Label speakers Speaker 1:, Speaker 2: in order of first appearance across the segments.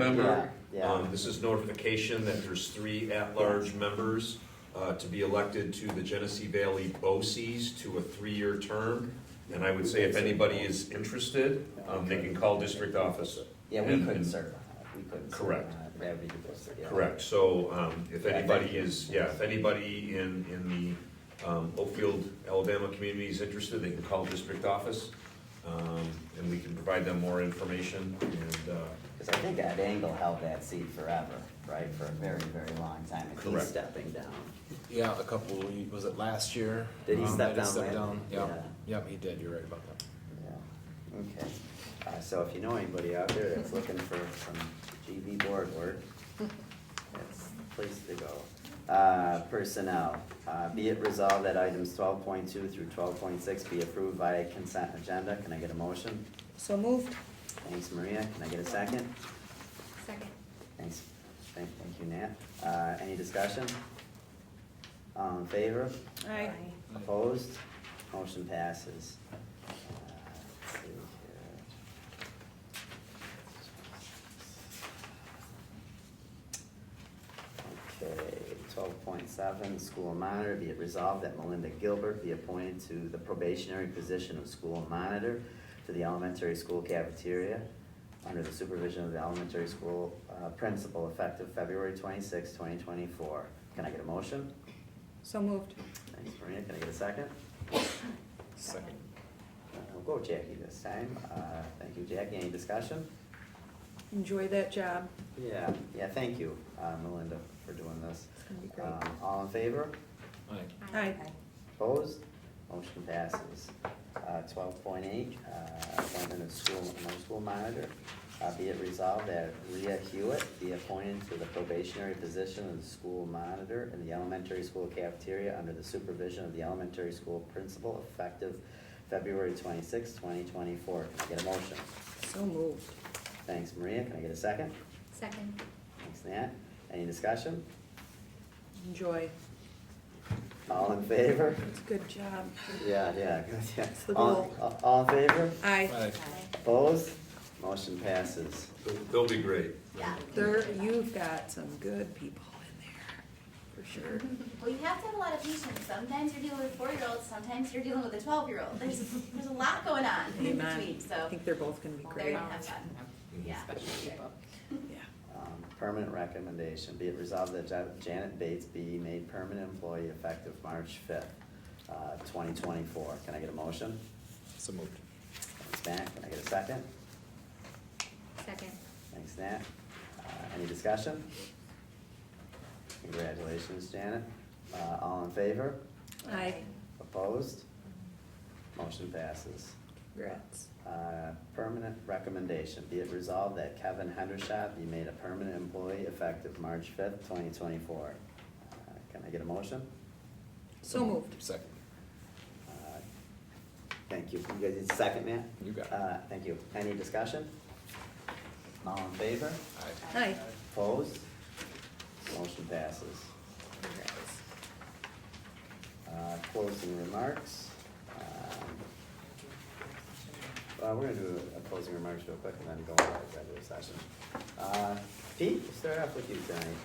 Speaker 1: Yeah,
Speaker 2: member.
Speaker 1: yeah.
Speaker 2: Um, This is notification that there's three at-large members uh, to be elected to the Genesee Valley BOCES to a three-year term. And I would say if anybody is interested, um, they can call district office.
Speaker 1: Yeah, we
Speaker 2: And-
Speaker 1: couldn't
Speaker 2: and-
Speaker 1: serve on that, we couldn't. serve
Speaker 2: Correct.
Speaker 1: on that. Yeah, we could serve, yeah.
Speaker 2: Correct, so um, if
Speaker 1: Yeah,
Speaker 2: anybody
Speaker 1: thank you.
Speaker 2: is, yeah, if anybody in, in the um, Oakfield, Alabama community is interested, they can call district office, um, and we can provide them more information, and, uh,
Speaker 1: Because I think Ed Engel held that seat forever, right, for a very, very long time, and he's
Speaker 2: Correct.
Speaker 1: stepping down.
Speaker 3: Yeah, a couple, was it last year?
Speaker 1: Did he
Speaker 3: Um,
Speaker 1: step
Speaker 3: that
Speaker 1: down
Speaker 3: stepped
Speaker 1: last-
Speaker 3: down,
Speaker 1: yeah.
Speaker 3: yeah, yeah, he did, you're right about that.
Speaker 1: Yeah, okay. Uh, so if you know anybody out there that's looking for some GV board work, that's the place to go. Uh, personnel, uh, be it resolved that items twelve point two through twelve point six be approved by consent agenda, can I get a motion?
Speaker 4: So moved.
Speaker 1: Thanks, Maria, can I get a second?
Speaker 5: Second.
Speaker 1: Thanks, thank, thank you, Nat. Uh, any discussion? All in favor?
Speaker 4: Aye.
Speaker 1: Opposed? Motion passes. Uh, let's see here. Okay, twelve point seven, school monitor, be it resolved that Melinda Gilbert be appointed to the probationary position of school monitor to the elementary school cafeteria under the supervision of the elementary school uh, principal effective February 26, twenty twenty-four. Can I get a motion?
Speaker 4: So moved.
Speaker 1: Thanks, Maria. Can I get a second?
Speaker 3: Second.
Speaker 1: Uh, We'll go Jackie this time. Uh, Thank you, Jackie. Any discussion?
Speaker 4: Enjoy that job.
Speaker 1: Yeah, yeah, thank you, uh, Melinda, for doing this.
Speaker 4: It's gonna be great.
Speaker 1: Um, All in favor?
Speaker 3: Aye.
Speaker 4: Aye.
Speaker 1: Opposed? Motion passes. Uh, Twelve point eight, uh, appointment of school, no school monitor. Uh, Be it resolved that Leah Hewitt be appointed to the probationary position of the school monitor in the elementary school cafeteria under the supervision of the elementary school principal effective February 26, twenty twenty-four. Can I get a motion?
Speaker 4: So moved.
Speaker 1: Thanks, Maria. Can I get a second?
Speaker 5: Second.
Speaker 1: Thanks, Nat. Any discussion?
Speaker 4: Enjoy.
Speaker 1: All in favor?
Speaker 4: It's a good job.
Speaker 1: Yeah, yeah, good, yeah.
Speaker 4: It's the
Speaker 1: All-
Speaker 4: goal.
Speaker 1: all- All in favor?
Speaker 4: Aye.
Speaker 3: Aye.
Speaker 1: Opposed? Motion passes.
Speaker 2: they'll- they'll be great.
Speaker 5: Yeah.
Speaker 4: There, you've got some good people in there, for sure.
Speaker 5: Well, you have to have a lot of patience. Sometimes you're dealing with four-year-olds, sometimes you're dealing with a twelve-year-old. There's, there's a lot going on in
Speaker 4: Amen.
Speaker 5: between,
Speaker 4: I
Speaker 5: so
Speaker 4: think they're both gonna be
Speaker 5: they're
Speaker 4: great.
Speaker 5: gonna have fun. Yeah.
Speaker 4: Yeah.
Speaker 1: Um, Permanent recommendation, be it resolved that Ja- Janet Bates be made permanent employee effective March fifth, uh, twenty twenty-four. Can I get a motion?
Speaker 3: So moved.
Speaker 1: Thanks, Matt. Can I get a second?
Speaker 5: Second.
Speaker 1: Thanks, Nat. Uh, Any discussion? Congratulations, Janet. Uh, All in favor?
Speaker 4: Aye.
Speaker 1: Opposed? Motion passes.
Speaker 4: Congrats.
Speaker 1: Uh, Permanent recommendation, be it resolved that Kevin Hendershot be made a permanent employee effective March fifth, twenty twenty-four. Uh, Can I get a motion?
Speaker 4: So moved.
Speaker 3: Second.
Speaker 1: Uh, Thank you. You guys need a second, man?
Speaker 3: You got it.
Speaker 1: Uh, Thank you. Any discussion? All in favor?
Speaker 3: Aye.
Speaker 4: Aye.
Speaker 1: Opposed? Motion passes.
Speaker 4: Congrats.
Speaker 1: Uh, Closing remarks. Um, Uh, we're gonna do a closing remarks real quick and then go on to executive session. Uh, Pete, we'll start off with you tonight.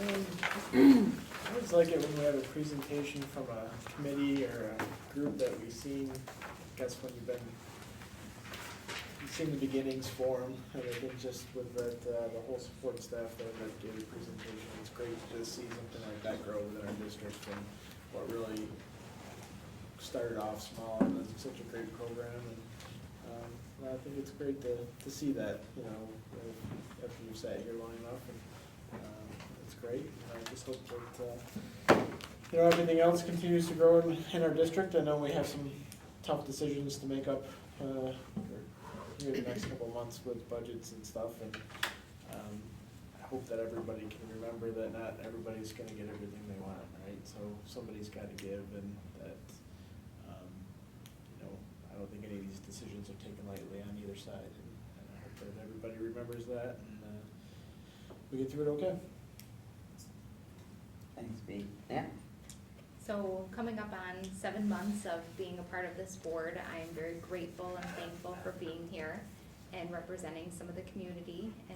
Speaker 6: Um, I always like it when we have a presentation from a committee or a group that we've seen, I guess when you've been, you've seen the beginnings form, and I think just with that, uh, the whole support staff there that gave the presentation, it's great to just see something like that grow within our district and what really started off small and it's such a great program and, um, and I think it's great to, to see that, you know, uh, after you've sat here long enough and, um, it's great. And I just hope that, uh, you know, everything else continues to grow in, in our district. I know we have some tough decisions to make up, uh, here in the next couple of months with budgets and stuff and, um, I hope that everybody can remember that not everybody's gonna get everything they want, right? So somebody's gotta give and that, um, you know, I don't think any of these decisions are taken lightly on either side, and and I hope that everybody remembers that, and, uh, we get through it okay.
Speaker 1: Thanks, Pete. Yeah?
Speaker 7: So coming up on seven months of being a part of this board, I am very grateful and thankful for being here and representing some of the community